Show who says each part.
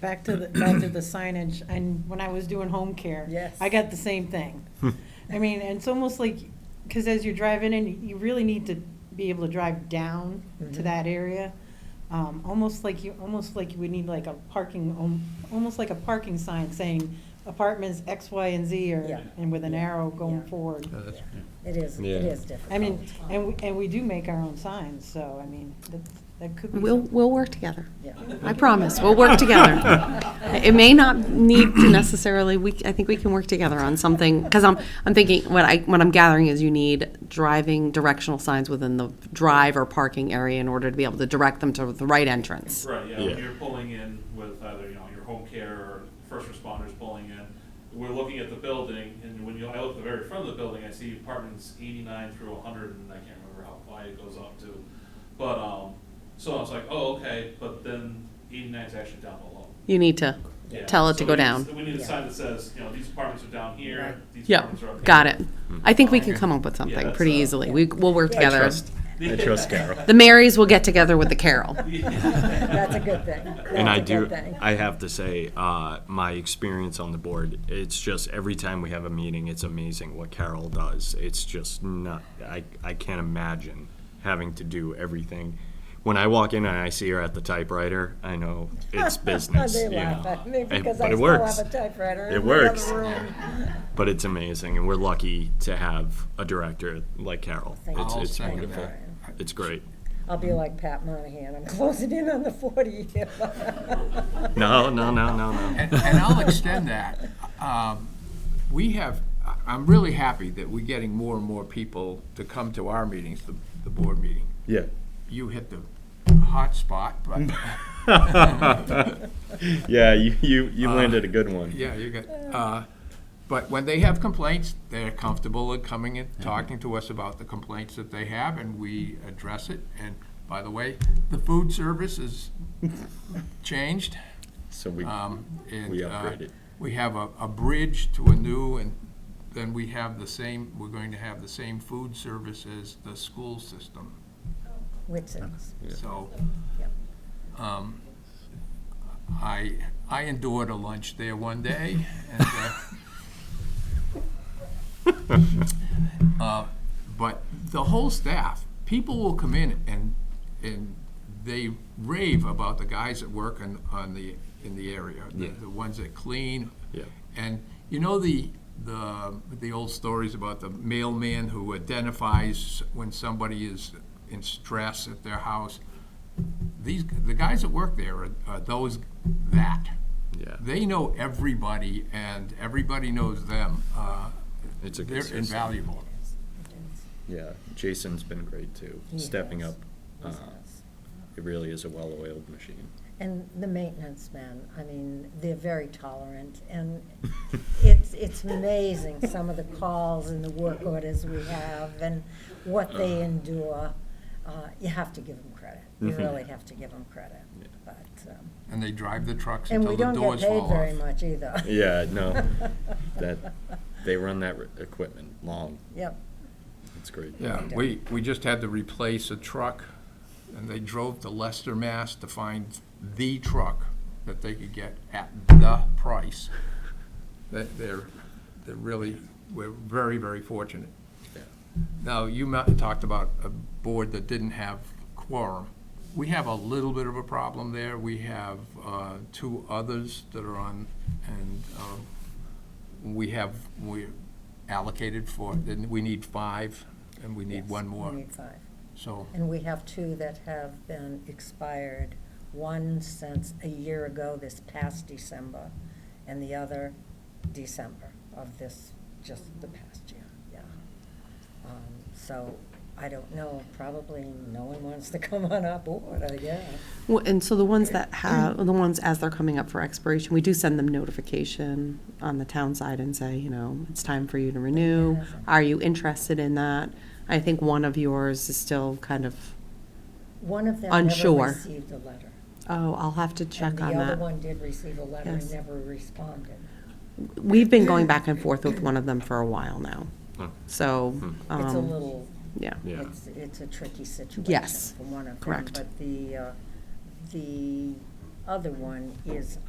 Speaker 1: back to the, back to the signage, and when I was doing home care.
Speaker 2: Yes.
Speaker 1: I got the same thing. I mean, and it's almost like, because as you're driving in, you really need to be able to drive down to
Speaker 2: Mhm.
Speaker 1: that area. Um, almost like you, almost like you would need like a parking, um, almost like a parking sign saying apartments X, Y, and Z,
Speaker 2: Yeah.
Speaker 1: or, and with an arrow going
Speaker 2: Yeah.
Speaker 1: forward.
Speaker 3: Yeah, that's-
Speaker 2: Yeah.
Speaker 3: yeah.
Speaker 2: It is, it
Speaker 4: Yeah.
Speaker 2: is different.
Speaker 1: I mean, and, we- and we do make our own signs, so, I mean, that, that could be.
Speaker 5: We'll,
Speaker 1: something.
Speaker 5: we'll work together.
Speaker 2: Yeah.
Speaker 5: I promise, we'll work together. It may not need to necessarily, we, I think we can work together on something, because I'm, I'm thinking, what I, what I'm gathering is you need driving directional signs within the drive or parking area in order to be able to direct them to the right entrance.
Speaker 6: Right, yeah, when
Speaker 4: Yeah.
Speaker 6: you're pulling in with either, you know, your home care or first responders pulling in, we're looking at the building, and when you, I look at the very front of the building, I see apartments eighty-nine through hundred, and I can't remember how high it goes up to. But, um, so I was like, oh, okay, but then 89 is actually down below.
Speaker 5: You need to
Speaker 6: Yeah,
Speaker 5: tell it
Speaker 6: so
Speaker 5: to
Speaker 6: we
Speaker 5: go
Speaker 6: need a-
Speaker 5: down.
Speaker 6: We need a
Speaker 2: Yeah.
Speaker 6: sign that says, you know, these apartments are down here,
Speaker 2: Right.
Speaker 6: these
Speaker 5: Yeah,
Speaker 6: apartments are up here.
Speaker 5: got it. I think we can come up with
Speaker 6: Yeah,
Speaker 5: something
Speaker 6: that's,
Speaker 5: pretty
Speaker 6: uh,
Speaker 5: easily. We, we'll work
Speaker 4: I
Speaker 5: together.
Speaker 4: trust, I trust Carol.
Speaker 5: The Marys will get together with the Carol.
Speaker 2: That's a good thing.
Speaker 4: And I
Speaker 2: That's a
Speaker 4: do,
Speaker 2: good thing.
Speaker 4: I have to say, uh, my experience on the board, it's just every time we have a meeting, it's amazing what Carol does. It's just not, I, I can't imagine having to do everything. When I walk in and I see her at the typewriter, I know it's business,
Speaker 2: They
Speaker 4: you
Speaker 2: laugh
Speaker 4: know.
Speaker 2: at me
Speaker 4: Hey,
Speaker 2: because
Speaker 4: but
Speaker 2: I
Speaker 4: it
Speaker 2: still have
Speaker 4: works.
Speaker 2: a typewriter
Speaker 4: It
Speaker 2: in the
Speaker 4: works.
Speaker 2: other room.
Speaker 4: But it's amazing, and we're lucky to have a director like Carol.
Speaker 2: Thank you.
Speaker 4: It's,
Speaker 3: I'll
Speaker 4: it's
Speaker 3: second
Speaker 4: wonderful.
Speaker 3: that.
Speaker 4: It's great.
Speaker 2: I'll be like Pat Monahan, I'm closing in on the forty.
Speaker 4: No, no, no, no, no.
Speaker 3: And, and I'll extend that. Um, We have, I- I'm really happy that we're getting more and more people to come to our meetings, the, the board meeting.
Speaker 4: Yeah.
Speaker 3: You hit the hot spot, but,
Speaker 4: Yeah, you, you, you landed a good one.
Speaker 3: Uh, yeah, you got, uh, but when they have complaints, they're comfortable in coming and talking to us about the complaints that they have, and we address it. And by the way, the food service is changed.
Speaker 4: So we,
Speaker 3: Um, and,
Speaker 4: We
Speaker 3: uh,
Speaker 4: upgraded.
Speaker 3: We have a, a bridge to a new, and then we have the same, we're going to have the same food service as the school system,
Speaker 2: Which
Speaker 4: Uh-huh.
Speaker 2: is,
Speaker 3: so.
Speaker 2: Yep.
Speaker 3: um, I, I endured a lunch there one day, and, uh, uh, but the whole staff, people will come in and, and they rave about the guys that work on, on the, in the area, the-
Speaker 4: Yeah.
Speaker 3: the ones that clean.
Speaker 4: Yeah.
Speaker 3: And you know the, the, the old stories about the mailman who identifies when somebody is in stress at their house? These, the guys that work there are, are those, that.
Speaker 4: Yeah.
Speaker 3: They know everybody and everybody knows them. Uh,
Speaker 4: It's a good
Speaker 3: They're
Speaker 4: system.
Speaker 3: invaluable.
Speaker 4: yeah, Jason's been great too,
Speaker 2: He
Speaker 4: stepping
Speaker 2: has.
Speaker 4: up. Uh, It really is a well-oiled machine.
Speaker 2: and the maintenance men, I mean, they're very tolerant, and it's, it's amazing, some of the calls and the work orders we have, and what they
Speaker 4: Uh-huh.
Speaker 2: endure. Uh, You have to give them credit,
Speaker 4: Mm-hmm.
Speaker 2: you really have to give them credit, but, um,
Speaker 3: And they drive the trucks
Speaker 2: and we
Speaker 3: until the
Speaker 2: don't get
Speaker 3: doors fall
Speaker 2: paid
Speaker 3: off.
Speaker 2: very much either.
Speaker 4: Yeah, no, that, they run that re- equipment long.
Speaker 2: Yep,
Speaker 4: It's great.
Speaker 3: Yeah, we, we just had to replace a truck, and they drove to Leicester, Mass. to find the truck that they could get at the price. They- They're, they're really, we're very, very fortunate. Now, you ma- talked about a board that didn't have quorum. We have a little bit of a problem there. We have uh, two others that are on, and um, we have, we allocated for, then we need five, and we need one
Speaker 2: we
Speaker 3: more.
Speaker 2: need five.
Speaker 3: So,
Speaker 2: And we have two that have been expired, one since a year ago, this past December, and the other December of this, just the past year, yeah. Um, So, I don't know, probably no one wants to come on our board, I guess.
Speaker 5: Well, and so the ones that have, the ones as they're coming up for expiration, we do send them notification on the town side and say, you know, it's time for you to renew. Are you interested in that? I think one of yours is still kind of,
Speaker 2: One of them never
Speaker 5: Unsure.
Speaker 2: received a letter.
Speaker 5: oh, I'll have to check on
Speaker 2: And the other
Speaker 5: that.
Speaker 2: one did receive a letter and
Speaker 5: Yes.
Speaker 2: never responded.
Speaker 5: We've been going back and forth with one of them for a while now.
Speaker 4: Oh.
Speaker 5: So,
Speaker 2: It's a
Speaker 5: um,
Speaker 2: little
Speaker 5: yeah.
Speaker 4: Yeah.
Speaker 2: It's, it's a tricky situation.
Speaker 5: Yes,
Speaker 2: For one of them.
Speaker 5: correct.
Speaker 2: But the, uh, the other one is